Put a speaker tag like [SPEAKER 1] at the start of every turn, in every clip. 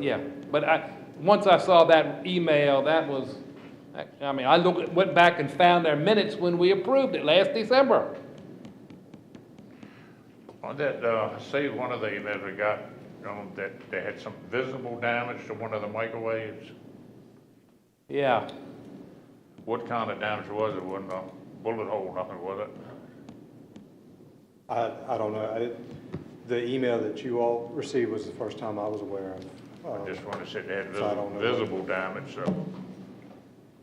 [SPEAKER 1] Yeah, but I, once I saw that email, that was, I mean, I looked, went back and found our minutes when we approved it last December.
[SPEAKER 2] On that, uh, I see one of the emails we got, um, that they had some visible damage to one of the microwaves.
[SPEAKER 1] Yeah,
[SPEAKER 2] What kind of damage was it? Wasn't a bullet hole, nothing, was it?
[SPEAKER 3] I, I don't know. I didn't, the email that you all received was the first time I was aware
[SPEAKER 2] I
[SPEAKER 3] of. uh,
[SPEAKER 2] just wanted to say they had
[SPEAKER 3] Uh-huh. So I don't
[SPEAKER 2] visible,
[SPEAKER 3] know.
[SPEAKER 2] visible damage, so,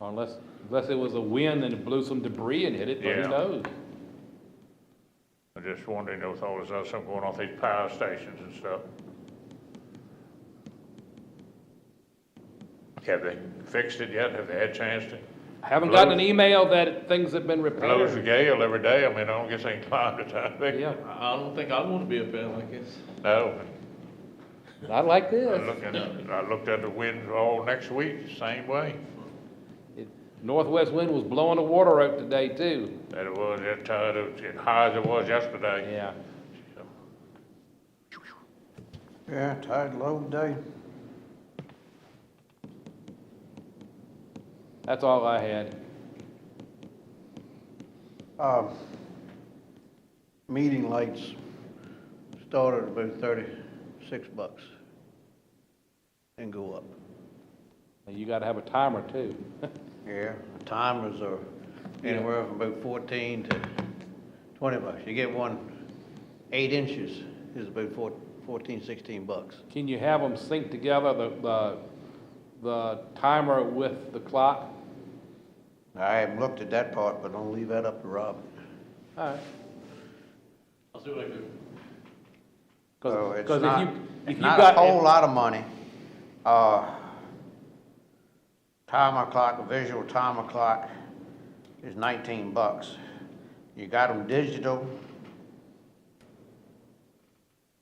[SPEAKER 1] unless, unless it was a wind and it blew some debris and hit it, but
[SPEAKER 2] Yeah.
[SPEAKER 1] who knows?
[SPEAKER 2] I'm just wondering if all this other stuff going on at these power stations and stuff. Have they fixed it yet? Have they had a chance to?
[SPEAKER 1] I Haven't gotten an
[SPEAKER 2] Blows-
[SPEAKER 1] email that things have been
[SPEAKER 2] Blows a
[SPEAKER 1] repaired.
[SPEAKER 2] gale every day. I mean, I don't guess they can climb the top.
[SPEAKER 1] Yeah,
[SPEAKER 4] I I don't think I want to be a fan like this.
[SPEAKER 2] No,
[SPEAKER 1] not like
[SPEAKER 2] I
[SPEAKER 1] this.
[SPEAKER 2] looked at, I looked at the wind all next week, same way.
[SPEAKER 1] It- Northwest wind was blowing the water out today too.
[SPEAKER 2] That it was, that tide, it was as high as it was yesterday.
[SPEAKER 1] Yeah,
[SPEAKER 5] Yeah, tide low day.
[SPEAKER 1] that's all I had.
[SPEAKER 5] Um, Meeting lights started about thirty-six bucks and go up.
[SPEAKER 1] You gotta have a timer too.
[SPEAKER 5] Yeah. Timers are anywhere from about fourteen to twenty bucks. You get one eight inches is about four- fourteen, sixteen bucks.
[SPEAKER 1] Can you have them sync together, the, the, the timer with the clock?
[SPEAKER 5] I haven't looked at that part, but don't leave that up to Rob.
[SPEAKER 1] All right.
[SPEAKER 4] I'll see what I can do.
[SPEAKER 5] So
[SPEAKER 1] Because,
[SPEAKER 5] it's
[SPEAKER 1] because
[SPEAKER 5] not,
[SPEAKER 1] if you, if
[SPEAKER 5] it's
[SPEAKER 1] you
[SPEAKER 5] not a whole
[SPEAKER 1] got,
[SPEAKER 5] lot of money. Uh, Timer clock, visual timer clock is nineteen bucks. You got them digital.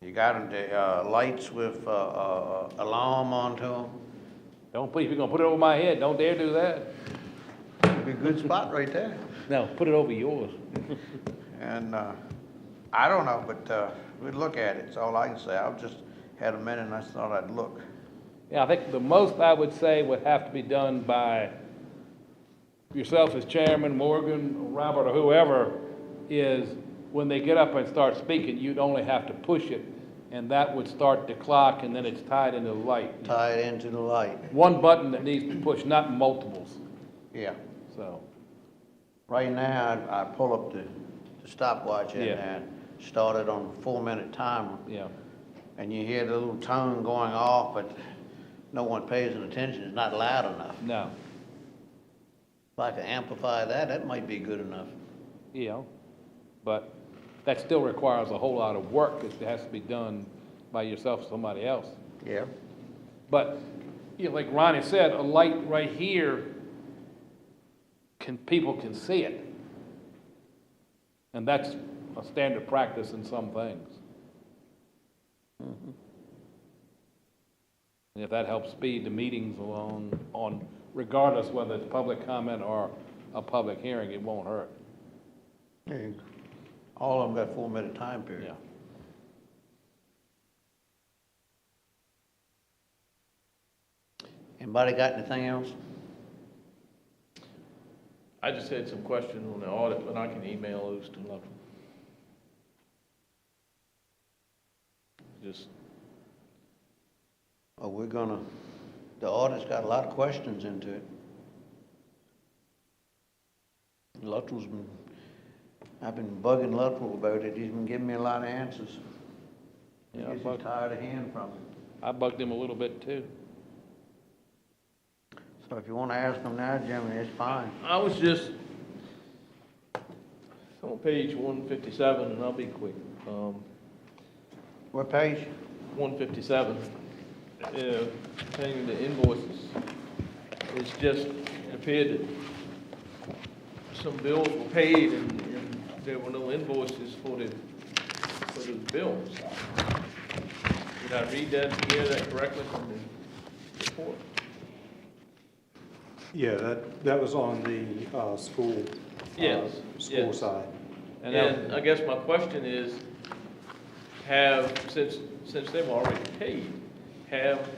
[SPEAKER 5] You got them, the, uh, lights with, uh, uh, uh, alarm onto them.
[SPEAKER 1] don't put, if you're gonna put it over my head, don't dare do that.
[SPEAKER 5] Be a good spot right there.
[SPEAKER 1] No, put it over yours.
[SPEAKER 5] And, uh, I don't know, but, uh, we'd look at it, it's all I can say. I've just had a minute and I thought I'd look.
[SPEAKER 1] Yeah, I think the most I would say would have to be done by yourself as chairman, Morgan, Robert, or whoever, is when they get up and start speaking, you'd only have to push it, and that would start the clock, and then it's tied into the light.
[SPEAKER 5] Tie it into the light,
[SPEAKER 1] One button that needs to push, not multiples,
[SPEAKER 5] yeah.
[SPEAKER 1] so.
[SPEAKER 5] Right now, I'd- I pull up the the stopwatch and-
[SPEAKER 1] Yeah.
[SPEAKER 5] and start it on a four-minute timer,
[SPEAKER 1] Yeah,
[SPEAKER 5] and you hear the little tone going off, but no one pays any attention, it's not loud enough.
[SPEAKER 1] no,
[SPEAKER 5] If I could amplify that, that might be good enough.
[SPEAKER 1] you know, but that still requires a whole lot of work that has to be done by yourself or somebody else.
[SPEAKER 5] Yeah.
[SPEAKER 1] But, you know, like Ronnie said, a light right here, can, people can see it. And that's a standard practice in some things. And if that helps speed the meetings along on, regardless whether it's public comment or a public hearing, it won't hurt,
[SPEAKER 5] All of them got four-minute time period.
[SPEAKER 1] yeah.
[SPEAKER 5] Anybody got anything else?
[SPEAKER 4] I just had some questions on the audit, but I can email those to Love. Just,
[SPEAKER 5] Or we're gonna, the audit's got a lot of questions into it. Luttrell's been, I've been bugging Luttrell about it, he's been giving me a lot of answers. He
[SPEAKER 1] Yeah, I
[SPEAKER 5] gets
[SPEAKER 1] bug-
[SPEAKER 5] tired of hearing from him.
[SPEAKER 1] I bugged him a little bit too.
[SPEAKER 5] So if you wanna ask him now, Jimmy, it's fine.
[SPEAKER 4] I was just, it's on page one fifty-seven, and I'll be quick. Um,
[SPEAKER 5] What page?
[SPEAKER 4] 157, uh, pertaining to invoices, it's just, it appeared that some bills were paid and and there were no invoices for the, for the bills. Did I read that, hear that correctly from the report?
[SPEAKER 3] Yeah, that, that was on the, uh, school. uh,
[SPEAKER 4] Yes,
[SPEAKER 3] School
[SPEAKER 4] yes.
[SPEAKER 3] side.
[SPEAKER 1] And that-
[SPEAKER 4] And I guess my question is, have, since, since they've already paid, have